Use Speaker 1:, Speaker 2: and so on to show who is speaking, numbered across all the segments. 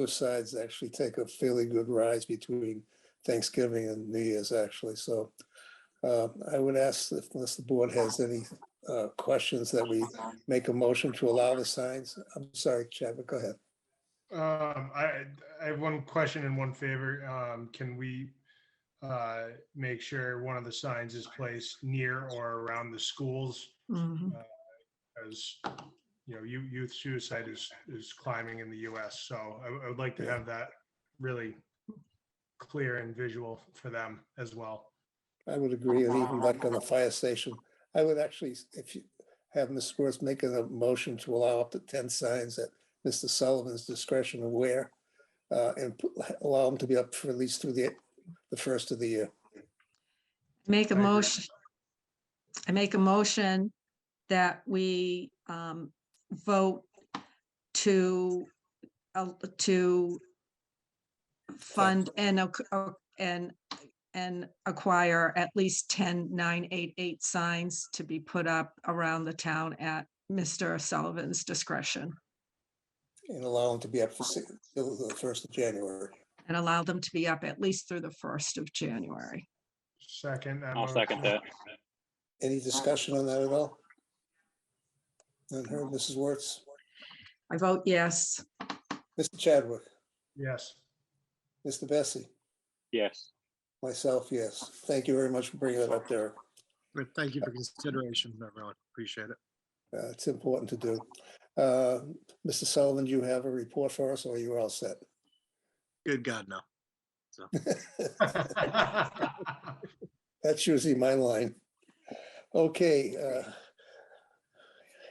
Speaker 1: suicides actually take a fairly good rise between Thanksgiving and New Year's, actually. So uh, I would ask, if- unless the board has any uh, questions, that we make a motion to allow the signs. I'm sorry, Chadwick, go ahead.
Speaker 2: Um, I, I have one question and one favor. Um, can we, uh, make sure one of the signs is placed near or around the schools?
Speaker 3: Mhm.
Speaker 2: As, you know, you, youth suicide is, is climbing in the US, so I, I would like to have that really clear and visual for them as well.
Speaker 1: I would agree, and even like on the fire station, I would actually, if you have Ms. Wertz making a motion to allow up to ten signs at Mr. Sullivan's discretion of where, uh, and put- allow them to be up for at least through the, the first of the year.
Speaker 3: Make a
Speaker 2: I agree.
Speaker 3: motion. I make a motion that we um, vote to, uh, to fund and, ac- uh, and, and acquire at least 10 988 signs to be put up around the town at Mr. Sullivan's discretion
Speaker 1: and allow them to be up for six, till the first of January.
Speaker 3: and allow them to be up at least through the 1st of January.
Speaker 2: Second.
Speaker 4: I'll second that.
Speaker 1: Any discussion on that at all? None heard, Mrs. Wertz,
Speaker 3: I vote yes.
Speaker 1: Mr. Chadwick,
Speaker 2: Yes.
Speaker 1: Mr. Bessie,
Speaker 4: Yes,
Speaker 1: myself, yes. Thank you very much for bringing that up there.
Speaker 5: But thank you for consideration, everyone. Appreciate it.
Speaker 1: Uh, It's important to do. Uh, Mr. Sullivan, do you have a report for us or are you all set?
Speaker 5: Good God, no.
Speaker 1: That's usually my line. Okay. uh,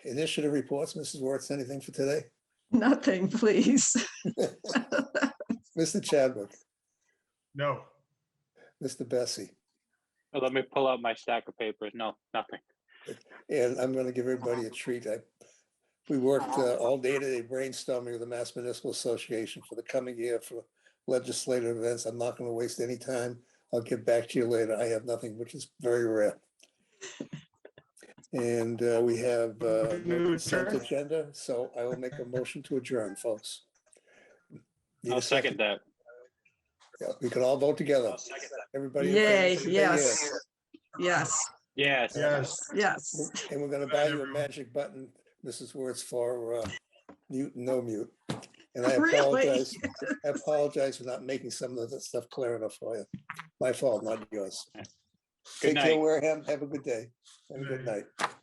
Speaker 1: Initiative reports, Mrs. Wertz, anything for today?
Speaker 3: Nothing, please.
Speaker 1: Mr. Chadwick,
Speaker 2: No,
Speaker 1: Mr. Bessie?
Speaker 4: Oh, let me pull out my stack of papers. No, nothing.
Speaker 1: And I'm gonna give everybody a
Speaker 3: Uh-huh.
Speaker 1: treat. I, we worked uh, all day today brainstorming with the Mass Municipal Association for the coming year for legislative events. I'm not gonna waste any time. I'll get back to you later. I have nothing, which is very rare. And uh, we have uh,
Speaker 2: Move
Speaker 1: no
Speaker 2: to
Speaker 1: consent
Speaker 2: adjourn.
Speaker 1: agenda, so I will make a motion to adjourn, folks. Need a
Speaker 4: I'll second that.
Speaker 1: Yeah, We can all vote together.
Speaker 4: I'll second
Speaker 1: Everybody. in favor,
Speaker 3: Yay,
Speaker 1: say
Speaker 3: yes, yes,
Speaker 4: Yes,
Speaker 2: yes.
Speaker 3: yes.
Speaker 1: And we're gonna
Speaker 2: Good night,
Speaker 1: buy you a
Speaker 2: everyone.
Speaker 1: magic button, Mrs. Wertz, for uh, mute, no mute. And I
Speaker 3: Really?
Speaker 1: apologize, I apologize for not making some of the stuff clear enough for you. My fault, not yours.
Speaker 4: good
Speaker 1: Take care,
Speaker 4: night.
Speaker 1: Wareham. Have a good day and a good
Speaker 2: Good
Speaker 1: night.